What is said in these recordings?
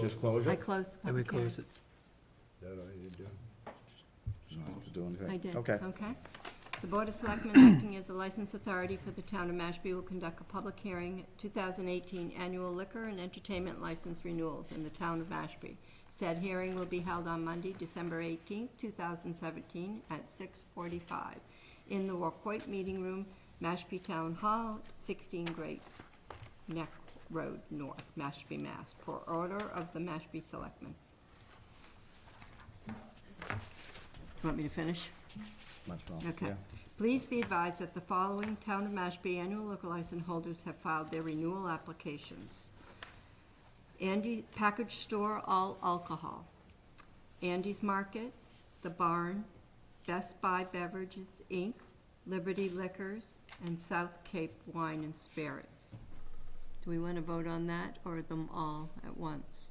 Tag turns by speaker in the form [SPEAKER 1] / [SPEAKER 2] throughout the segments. [SPEAKER 1] Just close
[SPEAKER 2] I
[SPEAKER 1] it?
[SPEAKER 2] closed the
[SPEAKER 3] I would
[SPEAKER 2] public hearing.
[SPEAKER 3] close it.
[SPEAKER 1] That all you do?
[SPEAKER 4] You don't have to do anything.
[SPEAKER 2] I did.
[SPEAKER 4] Okay.
[SPEAKER 2] Okay. The Board of Selectmen, acting as the license authority for the town of Mashpee, will conduct a public hearing, at 2018 annual liquor and entertainment license renewals in the town of Mashpee. Said hearing will be held on Monday, December 18, 2017, at 6:45 in the Wacoit Meeting Room, Mashpee Town Hall, 16 Great Neck Road North, Mashpee, Mass., per order of the Mashpee Selectmen. Want me to finish?
[SPEAKER 4] Much well,
[SPEAKER 2] Okay.
[SPEAKER 4] yeah.
[SPEAKER 2] Please be advised that the following Town of Mashpee annual liquor license holders have filed their renewal applications. Andy Package Store All Alcohol, Andy's Market, The Barn, Best Buy Beverages, Inc., Liberty Liquors, and South Cape Wine and Spirits. Do we want to vote on that or them all at once?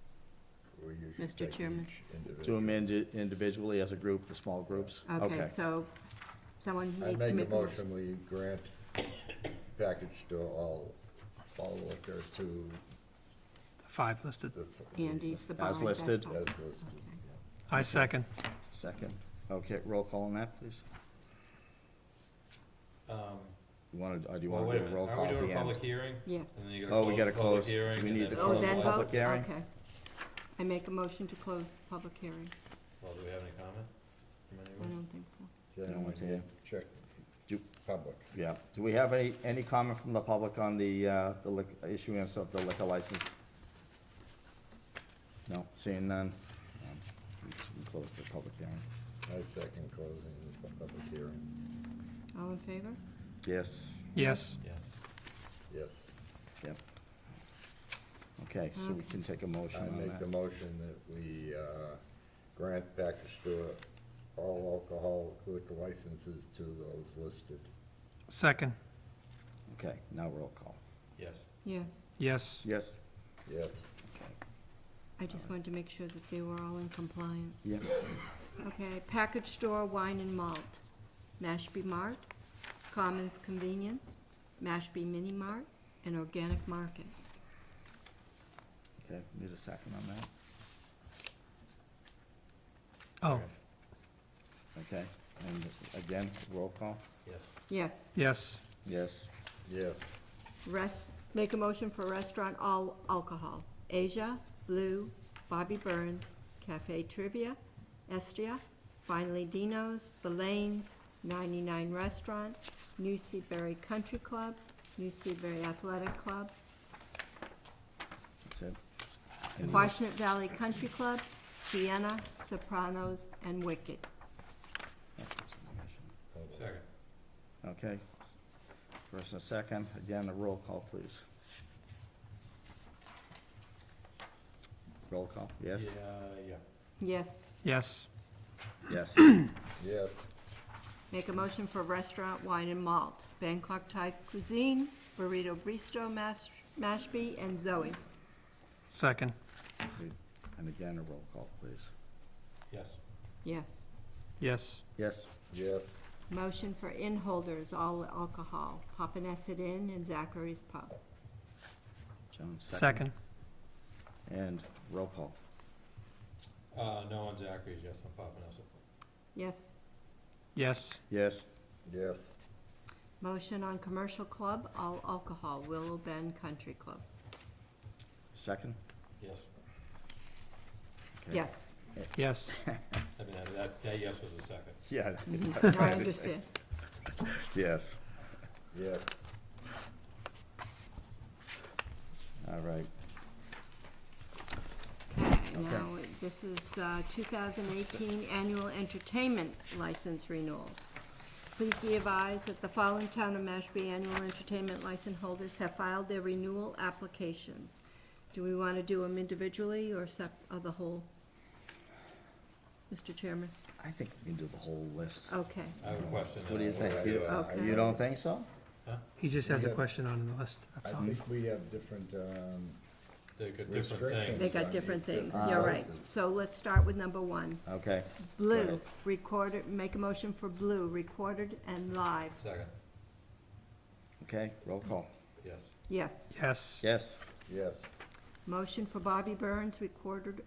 [SPEAKER 1] Or you should
[SPEAKER 2] Mr.
[SPEAKER 1] take each
[SPEAKER 2] Chairman.
[SPEAKER 4] Do
[SPEAKER 1] individual.
[SPEAKER 4] them indi- individually as a group, the small groups?
[SPEAKER 2] Okay, so someone
[SPEAKER 1] I
[SPEAKER 2] needs to
[SPEAKER 1] make a
[SPEAKER 2] make a motion.
[SPEAKER 1] motion, we grant package store all, all liquor to
[SPEAKER 3] The Five listed.
[SPEAKER 1] the.
[SPEAKER 2] Andy's, The Barn,
[SPEAKER 4] As
[SPEAKER 2] Best
[SPEAKER 4] listed.
[SPEAKER 2] Buy.
[SPEAKER 1] As listed.
[SPEAKER 3] I second.
[SPEAKER 4] Second. Okay, roll call on that, please.
[SPEAKER 5] Um,
[SPEAKER 4] You want to, do you
[SPEAKER 5] Well,
[SPEAKER 4] want
[SPEAKER 5] wait
[SPEAKER 4] to
[SPEAKER 5] a
[SPEAKER 4] do a roll
[SPEAKER 5] minute,
[SPEAKER 4] call
[SPEAKER 5] are we
[SPEAKER 4] at the
[SPEAKER 5] doing a
[SPEAKER 4] end?
[SPEAKER 5] public hearing?
[SPEAKER 2] Yes.
[SPEAKER 5] And then you
[SPEAKER 4] Oh, we gotta
[SPEAKER 5] gotta
[SPEAKER 4] close.
[SPEAKER 5] close the public hearing.
[SPEAKER 4] We
[SPEAKER 5] and
[SPEAKER 4] need to
[SPEAKER 2] Oh,
[SPEAKER 4] Close
[SPEAKER 2] then
[SPEAKER 4] the
[SPEAKER 2] vote?
[SPEAKER 4] public hearing?
[SPEAKER 2] Okay. I make a motion to close the public hearing.
[SPEAKER 5] Well, do we have any comment from
[SPEAKER 2] I
[SPEAKER 5] anyone?
[SPEAKER 2] don't think so.
[SPEAKER 1] Yeah,
[SPEAKER 4] No one's
[SPEAKER 1] we need
[SPEAKER 4] here.
[SPEAKER 1] to Check
[SPEAKER 4] Do-
[SPEAKER 1] public.
[SPEAKER 4] Yeah. Do we have any, any comment from the public on the, uh, the lic- issuance of the liquor license? No, seeing none. Um, We can close the public hearing.
[SPEAKER 1] I second closing the public hearing.
[SPEAKER 2] All in favor?
[SPEAKER 4] Yes,
[SPEAKER 3] Yes,
[SPEAKER 5] Yeah.
[SPEAKER 1] Yes.
[SPEAKER 4] yep. Okay, so we
[SPEAKER 2] Okay.
[SPEAKER 4] can take a motion
[SPEAKER 1] I
[SPEAKER 4] on
[SPEAKER 1] make the
[SPEAKER 4] that.
[SPEAKER 1] motion that we, uh, grant package store all alcohol liquor licenses to those listed.
[SPEAKER 3] second.
[SPEAKER 4] Okay, now roll call.
[SPEAKER 5] Yes.
[SPEAKER 2] Yes.
[SPEAKER 3] Yes,
[SPEAKER 4] Yes?
[SPEAKER 1] Yes.
[SPEAKER 4] Okay.
[SPEAKER 2] I just wanted to make sure that they were all in compliance.
[SPEAKER 4] Yeah.
[SPEAKER 2] Okay, package store wine and malt, Mashpee Mart, Commons Convenience, Mashpee Mini Mart, and Organic Market.
[SPEAKER 4] Okay, need a second on that,
[SPEAKER 3] oh,
[SPEAKER 4] okay? And again, roll call?
[SPEAKER 5] Yes.
[SPEAKER 2] Yes.
[SPEAKER 3] yes,
[SPEAKER 4] Yes,
[SPEAKER 1] Yes.
[SPEAKER 2] Rest, make a motion for restaurant all alcohol. Asia, Blue, Bobby Burns, Cafe Trivia, Estia, Finally Dino's, The Lanes, 99 Restaurant, New Seaberry Country Club, New Seaberry Athletic Club,
[SPEAKER 4] that's it. Any-
[SPEAKER 2] Quashnet Valley Country Club, Sienna, Sopranos, and Wicked.
[SPEAKER 5] Second.
[SPEAKER 4] Okay. First and second, again, a roll call, please. Roll call, yes?
[SPEAKER 5] Yeah, yeah.
[SPEAKER 2] Yes.
[SPEAKER 3] yes,
[SPEAKER 4] Yes.
[SPEAKER 1] Yes.
[SPEAKER 2] Make a motion for restaurant wine and malt, Bangkok Thai Cuisine, Burrito Bistro Mash- Mashpee, and Zoe's.
[SPEAKER 3] second.
[SPEAKER 4] And again, a roll call, please.
[SPEAKER 5] Yes.
[SPEAKER 2] Yes.
[SPEAKER 3] Yes,
[SPEAKER 4] Yes,
[SPEAKER 1] Yes.
[SPEAKER 2] Motion for inn holders, all alcohol, Papaneset Inn and Zachary's Pub.
[SPEAKER 4] Joan, second.
[SPEAKER 3] second.
[SPEAKER 4] And roll call,
[SPEAKER 5] Uh, no on Zachary's, yes, I'm popping us.
[SPEAKER 2] Yes.
[SPEAKER 3] Yes,
[SPEAKER 4] yes,
[SPEAKER 1] Yes.
[SPEAKER 2] Motion on commercial club, all alcohol, Willow Bend Country Club.
[SPEAKER 4] second?
[SPEAKER 5] Yes.
[SPEAKER 4] Okay.
[SPEAKER 2] Yes,
[SPEAKER 3] yes,
[SPEAKER 5] I mean, that- that, that yes was a second.
[SPEAKER 4] Yeah.
[SPEAKER 2] Mm-hmm. I understand.
[SPEAKER 4] Yes,
[SPEAKER 1] Yes.
[SPEAKER 4] all right.
[SPEAKER 2] Okay,
[SPEAKER 4] Okay.
[SPEAKER 2] now, this is uh, 2018 Annual Entertainment License Renewals. Please be advised that the following Town of Mashpee Annual Entertainment License holders have filed their renewal applications. Do we want to do them individually or sep, or the whole? Mr. Chairman?
[SPEAKER 4] I think we can do the whole list.
[SPEAKER 2] Okay,
[SPEAKER 5] I have a question.
[SPEAKER 4] What do you
[SPEAKER 5] uh,
[SPEAKER 4] think? Oh. You-
[SPEAKER 2] Okay.
[SPEAKER 4] You don't think so?
[SPEAKER 3] he just has a
[SPEAKER 1] Yeah.
[SPEAKER 3] question on the list,
[SPEAKER 1] I
[SPEAKER 3] that's all.
[SPEAKER 1] think we have different, um,
[SPEAKER 5] They got different
[SPEAKER 1] Restrictions.
[SPEAKER 2] they
[SPEAKER 5] things.
[SPEAKER 2] got different things,
[SPEAKER 1] Ah.
[SPEAKER 2] you're right. So let's start with number one.
[SPEAKER 4] Okay,
[SPEAKER 2] Blue, recorded, make a motion for blue, recorded and live,
[SPEAKER 5] Second,
[SPEAKER 4] okay, roll call,
[SPEAKER 5] yes.
[SPEAKER 2] yes.
[SPEAKER 3] Yes,
[SPEAKER 4] yes,
[SPEAKER 1] yes.
[SPEAKER 2] Motion for Bobby Burns, recorded